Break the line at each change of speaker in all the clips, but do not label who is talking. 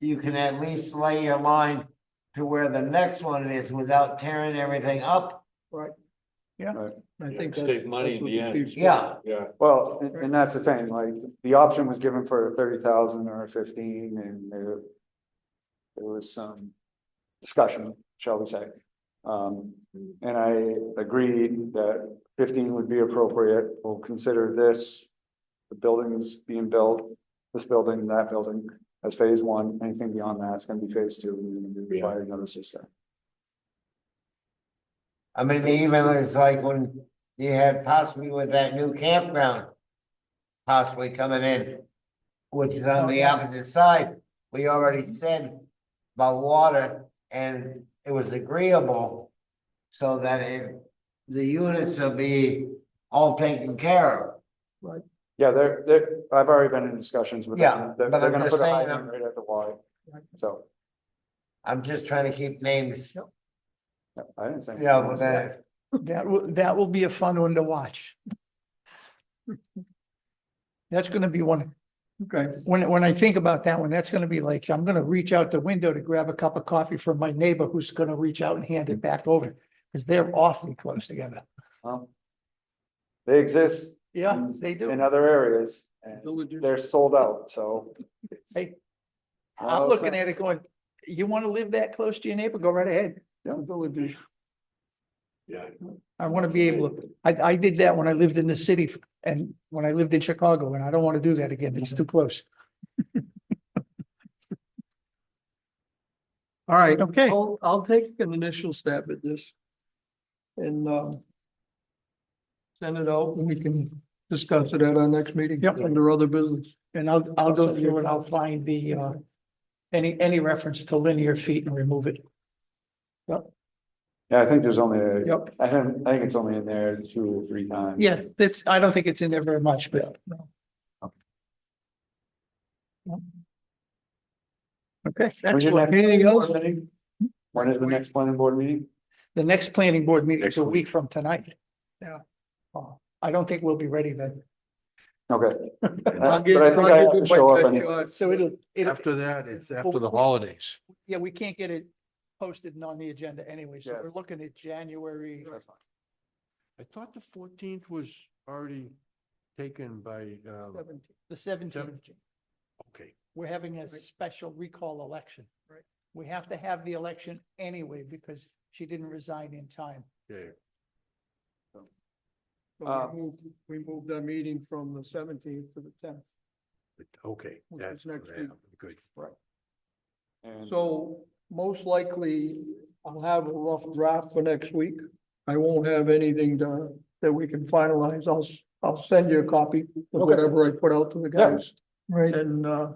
you can at least lay your line to where the next one is without tearing everything up.
I
Yeah,
think
save
that's-
money
that's
in
what
the end.
chief's got.
Yeah,
Yeah,
Well, and, and that's the thing, like, the option was given for thirty thousand or fifteen and there. There was some discussion, shall we say. Um, and I agreed that fifteen would be appropriate. We'll consider this. The buildings being built, this building, that building as phase one, anything beyond that is gonna be phase two, and we're gonna be
Yeah.
requiring another system.
I mean, even it's like when you had possibly with that new campground. Possibly coming in, which is on the opposite side, we already said about water and it was agreeable. So that it, the units will be all taken care of.
Yeah, they're, they're, I've already been in discussions with
Yeah,
them. They're,
but
they're
I'm
gonna
just
put a
saying, um,
hydrant right at the Y, so,
I'm just trying to keep names,
yeah, I didn't say.
you know, with that.
That will, that will be a fun one to watch. That's gonna be one. Okay. When, when I think about that one, that's gonna be like, I'm gonna reach out the window to grab a cup of coffee from my neighbor who's gonna reach out and hand it back over. Cause they're awfully close together.
Well, They exist
Yeah, they do.
in other areas and they're sold out, so.
Hey. I'm looking at it going, you wanna live that close to your neighbor? Go right ahead.
yeah.
I want to be able to, I, I did that when I lived in the city and when I lived in Chicago and I don't want to do that again. It's too close.
All right,
Okay.
I'll, I'll take an initial stab at this. And, um. Send it out and we can discuss it at our next meeting.
Yep.
Under other business.
And I'll, I'll go through and I'll find the, uh, any, any reference to linear feet and remove it.
Yeah, I think there's only, a-
Yep.
I think, I think it's only in there two or three times.
Yeah, that's, I don't think it's in there very much, but. Okay,
When's your
excellent.
next
Anything else?
board meeting? When is the next planning board meeting?
The next planning board meeting is
Next
a
week.
week from tonight. Yeah. Oh, I don't think we'll be ready then.
Okay. But
I'll
I
get-
think
I'll
I
give
have
you
to
my
show up
best
and
shot.
So it'll, it'll,
After that, it's after
Well,
the
we-
holidays.
yeah, we can't get it posted and on the agenda anyway, so
Yeah.
we're looking at January.
I thought the fourteenth was already taken by, um,
The seventeenth,
Seventeenth. okay.
we're having a special recall election. Right. We have to have the election anyway because she didn't resign in time.
Yeah,
But We moved- we moved our meeting from the seventeenth to the tenth.
but- okay,
Which
that's,
is next
yeah, good.
and-
So most likely I'll have a rough draft for next week. I won't have anything to, that we can finalize. I'll, s- I'll send you a copy of whatever I put out to the
Yeah.
guys.
Right.
And, uh,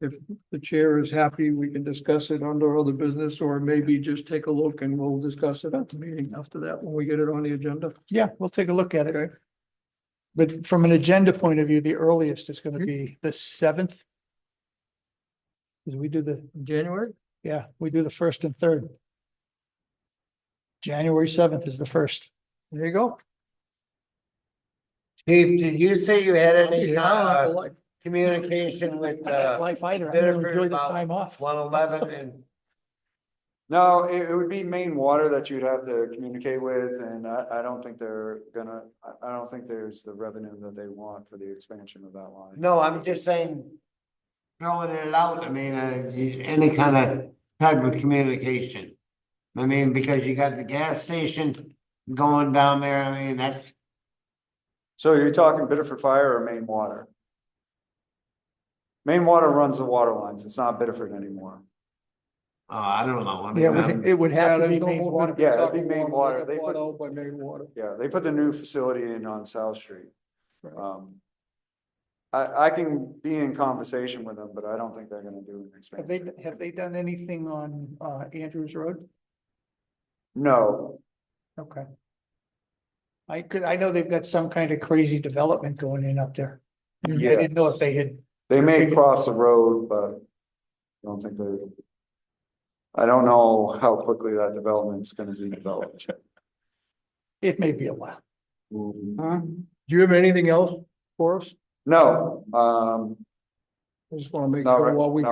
if the chair is happy, we can discuss it under other business or maybe just take a look and we'll discuss it at the meeting after that when we get it on the agenda.
Yeah, we'll take a look at it.
Okay.
But from an agenda point of view, the earliest is
Mm-hmm.
gonna be the seventh. Cause we do the,
January?
yeah, we do the first and third. January seventh is the first.
There you go.
Chief, did you say you had any
Yeah, I
uh,
like life.
communication with
I got
uh
Life either. I'm gonna
Jennifer, uh,
enjoy the
about
time off.
one eleven and?
No, it, it would be main water that you'd have to communicate with, and I, I don't think they're gonna, I, I don't think there's the revenue that they want for the expansion of that line.
No, I'm just saying, throwing it out, I mean, uh, you- any kind of type of communication. I mean, because you got the gas station going down there, I mean, that's,
So you're talking Biddeford Fire or Main Water? Main Water runs the water lines, it's not Biddeford anymore.
oh, I don't know. I mean,
Yeah, it would-
I'm-
it would
Yeah,
have to
there's
be
no
main
more
water.
Yeah, it'd
Soccer
be main water. They
got
put-
bought out by main water.
Yeah, they put the new facility in on South Street.
Right.
Um. I, I can be in conversation with them, but I don't think they're gonna do an
Have they,
expansion.
have they done anything on uh Andrews Road?
No,
Okay. I could, I know they've got some kind of crazy development going in up there. I
Yeah.
didn't know if they had,
they may cross the road, but I don't think they're. I don't know how quickly that development's gonna be developed.
it may be a while.
Do you have anything else for us?
No, um,
I just want to make
No,
sure
right-
while we